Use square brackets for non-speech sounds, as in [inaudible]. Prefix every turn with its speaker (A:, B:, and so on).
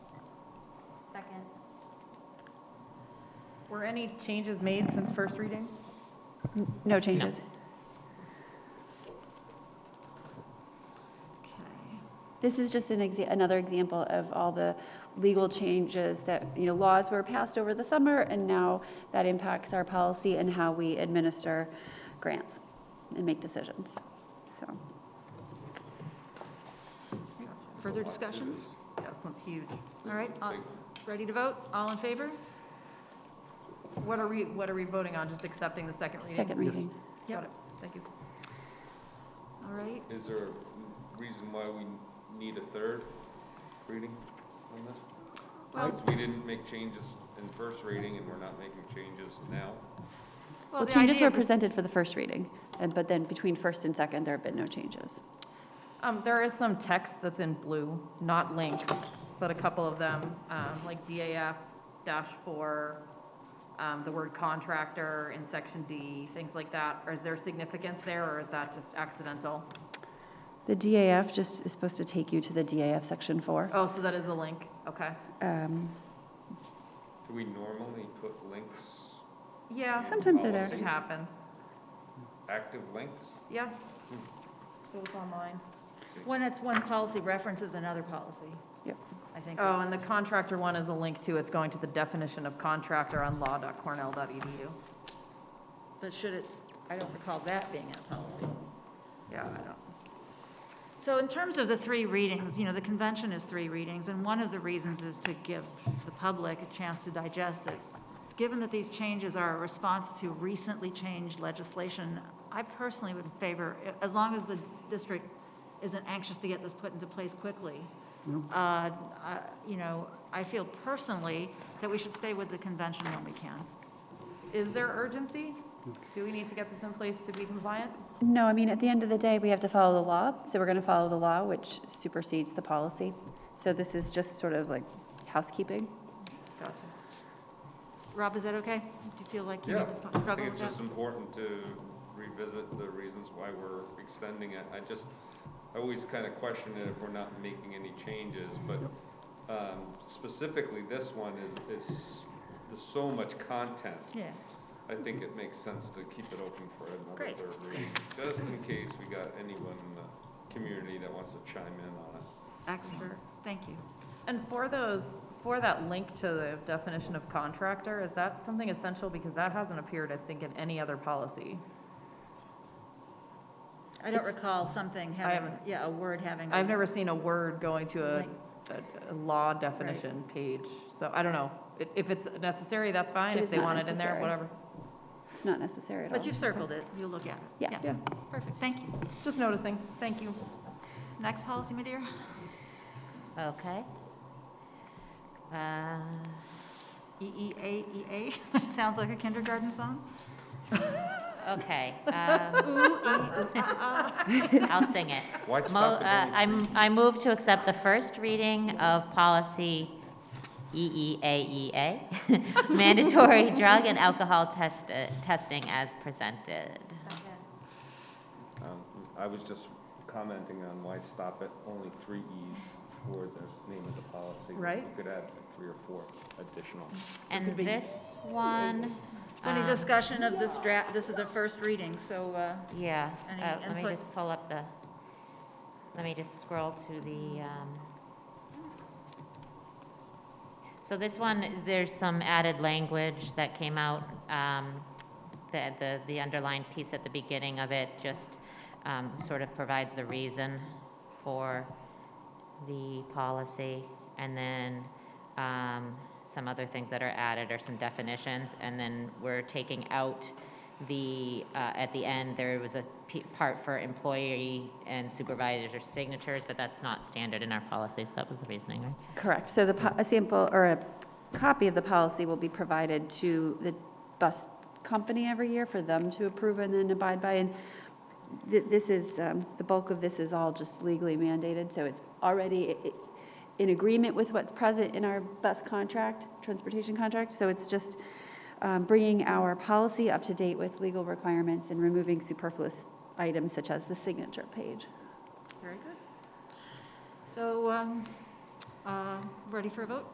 A: Second.
B: Were any changes made since first reading?
C: No changes.
B: Okay.
C: This is just an exa, another example of all the legal changes that, you know, laws were passed over the summer, and now that impacts our policy and how we administer grants and make decisions. So,
A: Further discussion?
B: Yeah, this one's huge.
A: All right, uh, ready to vote? All in favor?
B: What are we, what are we voting on? Just accepting the second reading?
C: second reading.
B: Got it. Thank you.
A: All right,
D: Is there a reason why we need a third reading on this? Since we didn't make changes in first reading and we're not making changes now?
C: Well,
A: the
C: changes
A: idea
C: were
A: of the-
C: presented for the first reading, and, but then between first and second, there have been no changes.
B: Um, there is some text that's in blue, not links, but a couple of them, um, like DAF dash four, um, the word contractor in section D, things like that. Or is there significance there or is that just accidental?
C: The DAF just is supposed to take you to the DAF Section 4.
B: Oh, so that is a link, okay.
A: Oh.
C: Um,
D: Do we normally put links,
B: Yeah,
D: Yeah.
C: Sometimes they're
B: it
C: there.
B: happens,
D: active links?
B: yeah. It was online.
A: When it's one policy references another policy,
C: Yep.
A: I think.
B: Oh,
A: that's-
B: and the contractor one is a link to, it's going to the definition of contractor on law.cornell.edu.
A: But should it, I don't recall that being in a policy.
B: Yeah, I don't.
A: So in terms of the three readings, you know, the convention is three readings, and one of the reasons is to give the public a chance to digest it. Given that these changes are a response to recently changed legislation, I personally would favor, as long as the district isn't anxious to get this put into place quickly, uh, I- you know, I feel personally that we should stay with the convention when we can.
B: Is there urgency? Do we need to get this in place to be compliant?
C: No, I mean, at the end of the day, we have to follow the law, so we're going to follow the law, which supersedes the policy. So this is just sort of like housekeeping.
B: Gotcha.
A: Rob, is that okay? Do you feel like you
D: Yeah,
A: need to struggle
D: I
A: with that?
D: think it's just important to revisit the reasons why we're extending it. I just, I always kind of question it if we're not making any changes, but um, specifically this one is, is, there's so much content.
A: Yeah.
D: I think it makes sense to keep it open for another
A: Great.
D: third reading, just in case we got anyone in the community that wants to chime in on it.
A: Excellent, thank you.
B: And for those, for that link to the definition of contractor, is that something essential? Because that hasn't appeared, I think, in any other policy.
A: I don't recall something having,
B: haven't-
A: yeah, a word having. a-
B: I've never seen a word going to a,
A: Link.
B: a- a law definition page, so I don't know. I- If it's necessary, that's fine, if
C: It is
B: they
C: not
B: want it in there,
C: necessary.
B: whatever.
C: It's not necessary at all.
A: But you've circled it, you'll look at it.
C: Yeah.
A: Perfect, thank you.
B: Just noticing, thank you.
A: Next policy, Madeira?
E: Okay. Uh,
A: E EEAEA, which sounds like a kindergarten song.
E: Okay, um,
A: Ooh,
E: [laughs]
A: ee, ooh, ah, ah.
E: I'll sing it.
D: Why
E: Mo-
D: stop
E: uh,
D: at any
E: I'm- I move to accept the first reading of policy E EEAEA, [laughs] mandatory
A: [laughs]
E: drug and alcohol test uh, testing as presented.
D: Um, I was just commenting on why stop at only three E's for the name of the policy.
B: Right.
D: You could add three or four additional.
E: And this one,
A: E So Any
E: um,
A: discussion of this draft, this is a first reading, so, uh,
E: yeah,
A: Any
E: uh, let me just
A: inputs?
E: pull up the, let me just scroll to the, um, so this one, there's some added language that came out, um, the, the, the underlined piece at the beginning of it just, um, sort of provides the reason for the policy, and then, um, some other things that are added are some definitions, and then we're taking out the, uh, at the end, there was a p- part for employee and supervisor signatures, but that's not standard in our policies, that was the reasoning, right?
C: Correct. So the, po- a sample or a copy of the policy will be provided to the bus company every year for them to approve and then abide by. And th- this is, um, the bulk of this is all just legally mandated, so it's already i- i- in agreement with what's present in our bus contract, transportation contract. So it's just um, bringing our policy up to date with legal requirements and removing superfluous items such as the signature page.
A: very good. So, um, uh, ready for a vote?